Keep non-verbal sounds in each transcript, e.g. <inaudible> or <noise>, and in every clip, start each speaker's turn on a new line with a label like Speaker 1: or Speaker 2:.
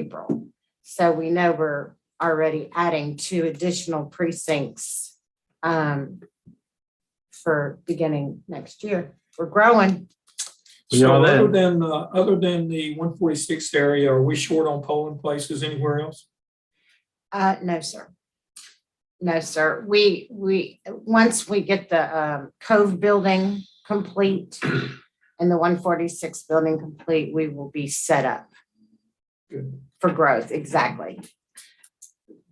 Speaker 1: April. So we know we're already adding two additional precincts um, for beginning next year. We're growing.
Speaker 2: Yeah,
Speaker 3: So other
Speaker 2: then-
Speaker 3: than, uh, other than the one forty-sixth area, are we short on polling places anywhere else?
Speaker 1: Uh, no, sir. No, sir. We, we, once we get the um, Cove building complete and the one forty-six building complete, we will be set up
Speaker 3: Good.
Speaker 1: for growth, exactly.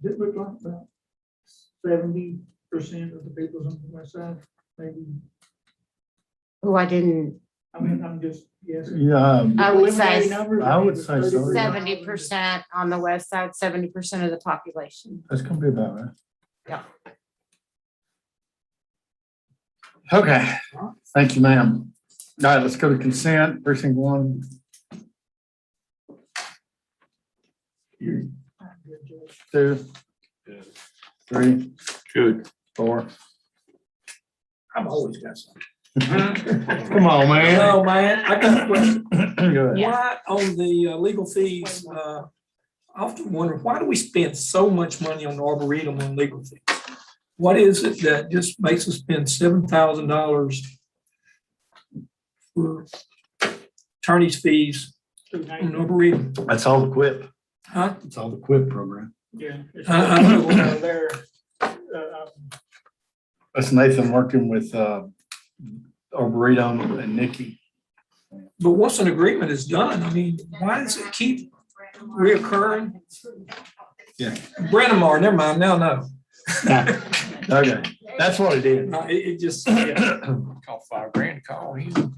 Speaker 3: Did we talk about seventy percent of the people on the west side, maybe?
Speaker 1: Who I didn't,
Speaker 3: I mean, I'm just, yes.
Speaker 2: Yeah, um,
Speaker 3: Uh,
Speaker 1: I would say
Speaker 2: I would say so.
Speaker 1: seventy percent on the west side, seventy percent of the population.
Speaker 2: that's gonna be about right.
Speaker 1: Yeah.
Speaker 2: Okay, thank you, ma'am. All right, let's go to consent, precinct one. Two, three,
Speaker 4: Good.
Speaker 2: four.
Speaker 3: I've always got something. <laughs>
Speaker 2: Come on, man. <clears throat>
Speaker 3: Oh, man, I got a question.
Speaker 2: Go ahead.
Speaker 3: Why on the uh, legal fees, uh, I often wonder, why do we spend so much money on arboretum and legal fees? What is it that just makes us spend seven thousand dollars for attorney's fees on arboretum?
Speaker 2: That's all the quip.
Speaker 3: Huh?
Speaker 2: It's all the quip program.
Speaker 5: Yeah. it's-
Speaker 2: Uh,
Speaker 3: I- I don't know.
Speaker 5: There, uh,
Speaker 2: That's Nathan working with, uh, Arboretum and Nikki.
Speaker 3: But once an agreement is done, I mean, why does it keep reoccurring?
Speaker 2: Yeah.
Speaker 3: Brennamar, never mind, now, no.
Speaker 2: Okay, that's what it <clears throat> is.
Speaker 3: No, <laughs> It, it just, yeah,
Speaker 4: Call five grand, call him.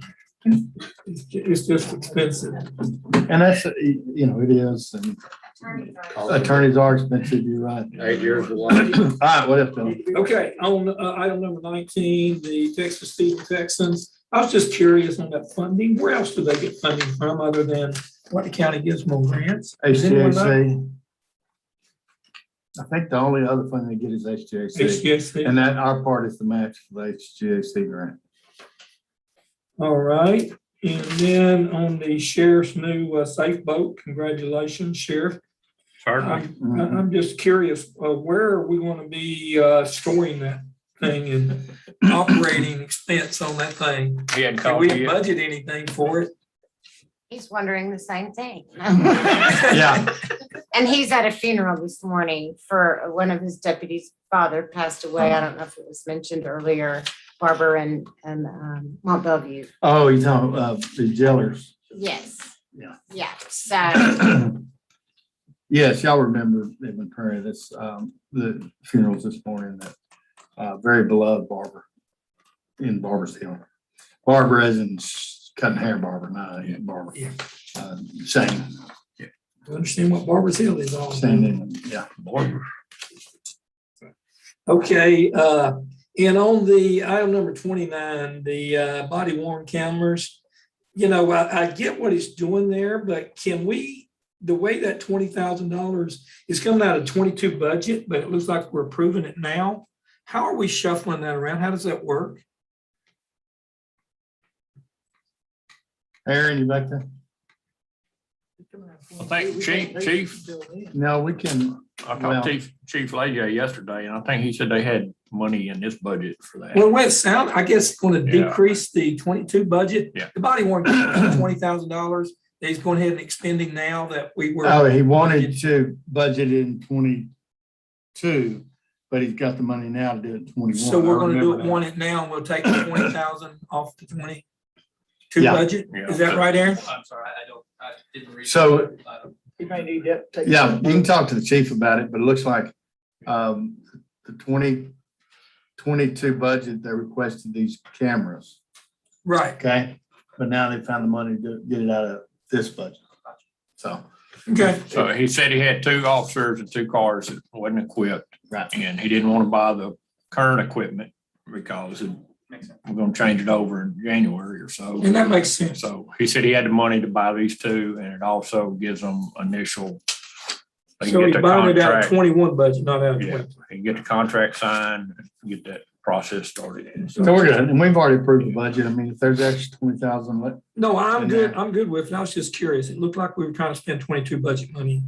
Speaker 3: it's ju- it's just expensive.
Speaker 2: And that's, you know, it is, and attorneys are expensive, you're right.
Speaker 4: Eight years of
Speaker 2: <clears throat> All right, what else? Bill?
Speaker 3: Okay, on uh, item number nineteen, the Texas Feed Texans, I was just curious on that funding. Where else do they get funding from other than what the county gives more grants? Does anyone know?
Speaker 2: HTAC. I think the only other fund they get is HTAC,
Speaker 3: HGSC.
Speaker 2: and that our part is the match for the HTAC grant.
Speaker 3: All right, and then on the sheriff's new uh, safe boat, congratulations, Sheriff.
Speaker 4: Certainly.
Speaker 3: I'm, I- I'm just curious, uh, where are we gonna be uh, storing that thing and operating expense on that thing?
Speaker 4: He
Speaker 3: And
Speaker 4: hadn't called
Speaker 3: we
Speaker 4: you
Speaker 3: didn't
Speaker 4: yet.
Speaker 3: budget anything for it.
Speaker 1: He's wondering the same thing.
Speaker 2: Yeah,
Speaker 1: And he's at a funeral this morning for one of his deputies' father passed away. I don't know if it was mentioned earlier, Barbara and, and um, Mont Bellevue.
Speaker 2: oh, you talking, uh, the jailers.
Speaker 1: Yes.
Speaker 2: Yeah.
Speaker 1: Yeah,
Speaker 2: <clears throat>
Speaker 1: so,
Speaker 2: Yes, y'all remember Edmund Prairie, this, um, the funerals this morning, that, uh, very beloved Barbara in Barbara's Hill. Barbara as in sh- cutting hair Barbara, not Aunt Barbara.
Speaker 3: Yeah.
Speaker 2: Uh, Shane,
Speaker 3: Understand what Barbara's Hill is all about.
Speaker 2: Shane Edmund, yeah.
Speaker 3: Okay, uh, and on the item number twenty-nine, the, uh, body worn cameras. You know, I, I get what he's doing there, but can we, the way that twenty thousand dollars is coming out of twenty-two budget, but it looks like we're approving it now. How are we shuffling that around? How does that work?
Speaker 2: Aaron, you back there?
Speaker 4: I think Chief, Chief,
Speaker 2: No, we can,
Speaker 4: I
Speaker 2: Well-
Speaker 4: talked to Chief, Chief Leja yesterday, and I think he said they had money in this budget for that.
Speaker 3: Well, wait, sound, I guess it's gonna
Speaker 4: Yeah.
Speaker 3: decrease the twenty-two budget.
Speaker 4: Yeah.
Speaker 3: The body worn twenty thousand dollars, that he's going ahead and expending now that we were.
Speaker 2: oh, he wanted to budget it in twenty-two, but he's got the money now to do it in twenty-one.
Speaker 3: So we're gonna
Speaker 2: I
Speaker 3: do
Speaker 2: remember
Speaker 3: it
Speaker 2: that.
Speaker 3: one at now, and we'll take the twenty thousand off the twenty two
Speaker 2: Yeah.
Speaker 3: budget, is that right, Aaron?
Speaker 6: I'm sorry, I don't, I didn't read.
Speaker 2: So-
Speaker 6: it. I don't-
Speaker 5: You may need that. take-
Speaker 2: Yeah, you can talk to the chief about it, but it looks like um, the twenty twenty-two budget, they requested these cameras,
Speaker 3: Right,
Speaker 2: okay? But now they found the money to get it out of this budget. So,
Speaker 3: okay,
Speaker 4: So he said he had two officers and two cars that wasn't equipped,
Speaker 2: right,
Speaker 4: and he didn't want to buy the current equipment because it-
Speaker 6: Makes sense.
Speaker 4: we're gonna change it over in January or so.
Speaker 3: and that makes sense.
Speaker 4: So he said he had the money to buy these two, and it also gives them initial. they
Speaker 3: So
Speaker 4: get
Speaker 3: we
Speaker 4: the
Speaker 3: bonded out
Speaker 4: contract.
Speaker 3: of twenty-one budget, not out of
Speaker 4: Yeah.
Speaker 3: twenty.
Speaker 4: and get the contract signed, and get that process started. And
Speaker 2: so we're good, and we've already approved the budget, I mean, if there's extra twenty thousand, let,
Speaker 3: No, I'm
Speaker 2: And
Speaker 3: good,
Speaker 2: that-
Speaker 3: I'm good with it, I was just curious, it looked like we were trying to spend twenty-two budget money